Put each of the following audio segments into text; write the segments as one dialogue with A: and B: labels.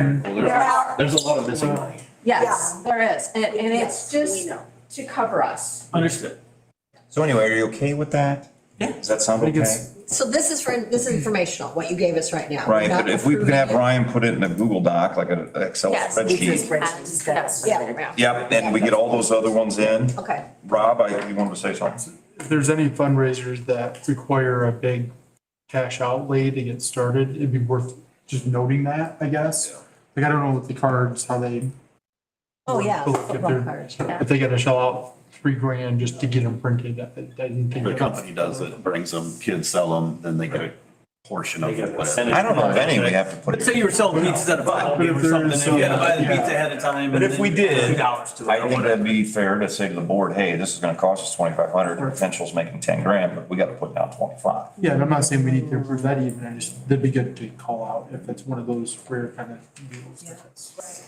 A: Well, there's, there's a lot of missing money.
B: Yes, there is, and, and it's
C: we
B: just
C: know.
B: to cover us.
D: Understood.
E: So anyway, are you okay with that?
D: Yeah.
E: Does that sound
D: I think
E: okay?
D: it's-
C: So this is for, this is informational, what you gave us right now.
E: Right,
C: We're
E: but
C: not
E: if we could have
C: approving
E: Ryan put it in a Google Doc, like an Excel
B: Yes,
E: spreadsheet.
B: Yes.
C: it. Yeah, yeah,
E: Yep, and we get all those other ones in.
C: okay.
E: Rob, I, you wanted to say something?
F: if there's any fundraisers that require a big cash outlay to get started, it'd be worth just noting that, I guess. Like, I don't know with the cards, how they.
C: Oh, yeah,
F: But if
C: football
F: they're-
C: cards,
F: If they gotta shell out three grand just to get them printed, I I didn't think.
A: The company does it, brings them, kids sell them, then they get a portion of it, whatever.
E: I don't know if any we have to put.
D: But say you were selling pizzas at a five, you were something, and you had to buy the pizza ahead of time.
E: But
D: and
E: if we
D: then
E: did,
D: Two dollars to it.
E: I think that'd be fair to say to the board, hey, this is gonna cost us twenty-five hundred, the potential's making ten grand, but we gotta put down twenty-five.
F: Yeah, and I'm not saying we need to approve that even, I just, that'd be good to call out if it's one of those rare kind of deals. that it's-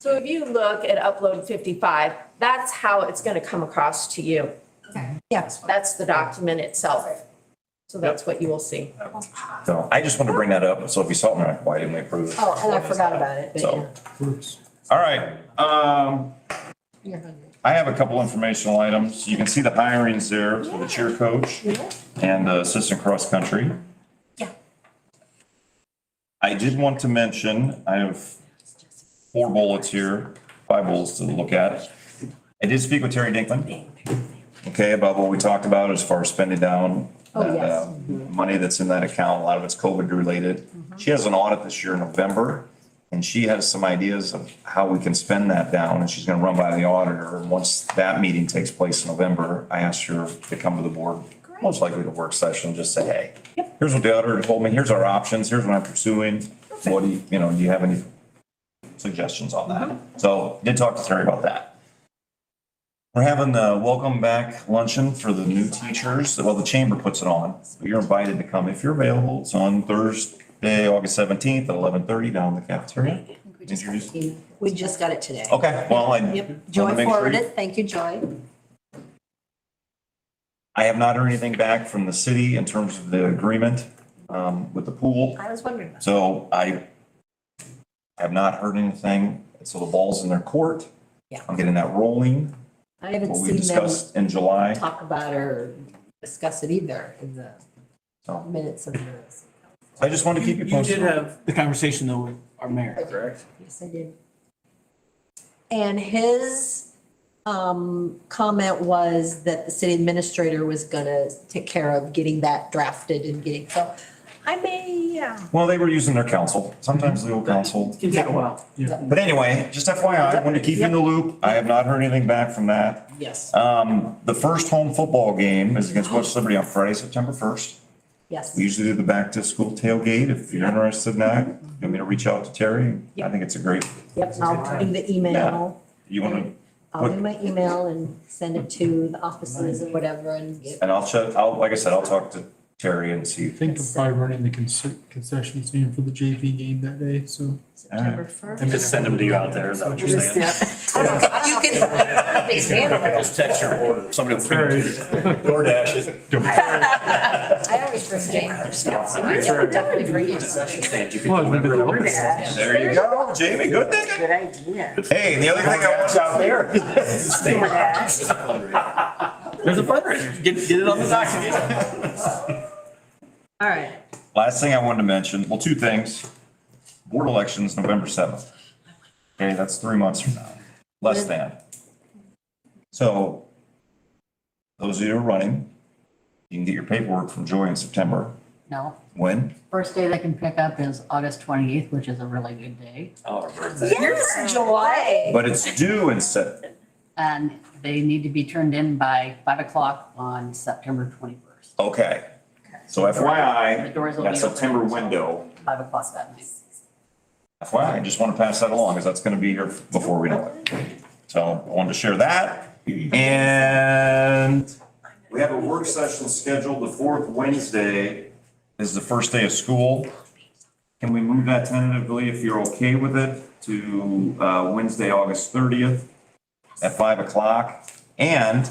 B: So if you look at upload fifty-five, that's how it's gonna come across to you.
C: yes.
B: That's the document itself. So that's what you will see.
E: So I just wanted to bring that up, so if you saw it, I'm like, why didn't we approve it?
C: Oh, and I forgot about it, but
E: So,
C: yeah,
E: all right, um,
C: you're hungry.
E: I have a couple informational items. You can see the hirings there for the cheer coach and the assistant cross country. Yeah. I did want to mention, I have four bullets here, five bullets to look at. I did speak with Terry Dinkman. Okay, about what we talked about as far as spending down.
C: Oh,
E: that,
C: yes.
E: um, Money that's in that account, a lot of it's COVID related.
C: Mm-hmm.
E: She has an audit this year in November. And she has some ideas of how we can spend that down and she's gonna run by the auditor. And once that meeting takes place in November, I asked her to come to the board, most likely the work session, just say, hey, here's what the auditor told me, here's our options, here's what I'm pursuing. What do you, you know, do you have any suggestions on
C: Mm-hmm.
E: that? So did talk to Terry about that. We're having the welcome back luncheon for the new teachers. Well, the chamber puts it on. but You're invited to come if you're available. It's on Thursday, August seventeenth at eleven thirty down in the cafeteria. Introduce-
C: We just got it today.
E: Okay, well, I. wanna
C: Yep, Joy
E: make sure-
C: forwarded, thank you, Joy.
E: I have not heard anything back from the city in terms of the agreement um, with the pool.
C: I was wondering. about
E: So I have not heard anything. So the ball's in their court.
C: Yeah.
E: I'm getting that rolling.
C: I haven't
E: What we
C: seen them
E: discussed in July.
C: talk about or discuss it either in the
E: So
C: minutes of this.
E: I just wanted to keep you
D: You did
E: posted.
D: have the conversation though with our mayor, correct?
C: Yes, I did. And his um, comment was that the city administrator was gonna take care of getting that drafted and getting, so I may, yeah.
E: Well, they were using their counsel, sometimes legal counsel.
D: Can take a while.
E: But anyway, just FYI, I wanted to keep you in the loop. I have not heard anything back from that.
C: Yes.
E: Um, The first home football game is against West Liberty on Friday, September 1st.
C: Yes,
E: We usually do the back to school tailgate. If you're interested in that, you want me to reach out to Terry? I think it's a great,
C: yep, I'll do the
E: Yeah.
C: email,
E: you want to,
C: I'll do my email and send it to the offices and whatever and get.
E: and I'll check, I'll, like I said, I'll talk to Terry and see.
F: I Think of probably running the conce- concession stand for the JV game that day, so.
C: September first.
D: And just send them to you out there, is that what you're saying?
C: You can. They stand for it.
D: Just text your order, somebody will. bring it to you.
E: DoorDash is.
C: I always forget.
B: Definitely bring it.
D: Concession stand, you can
F: Well,
D: deliver it.
E: There you go, Jamie, good thinking.
G: Good idea.
E: Hey, and the other thing I want out there.
D: There's a fundraiser, get, get it on the document.
C: All right.
E: Last thing I wanted to mention, well, two things. Board elections, November seventh. Okay, that's three months from now, less than. So those of you who are running, you can get your paperwork from Joy in September.
G: No,
E: When?
G: first day they can pick up is August twenty-eighth, which is a really good day.
D: Oh, our birthday.
C: Yes, July.
E: But it's due in Sep,
G: And they need to be turned in by five o'clock on September twenty-first.
E: okay. So
G: The doors
E: FYI,
G: will
E: that
G: be
E: September
G: open until
E: window,
G: Five o'clock that night.
E: FYI, I just want to pass that along because that's going to be here before we know it. So I wanted to share that. And we have a work session scheduled the fourth Wednesday is the first day of school. Can we move that tentatively, if you're okay with it, to uh, Wednesday, August 30th at 5 o'clock? And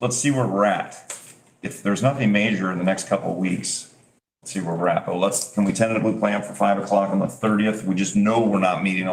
E: let's see where we're at. If there's nothing major in the next couple of weeks, see where we're at, but let's, can we tentatively plan for five o'clock on the thirtieth? We just know we're not meeting on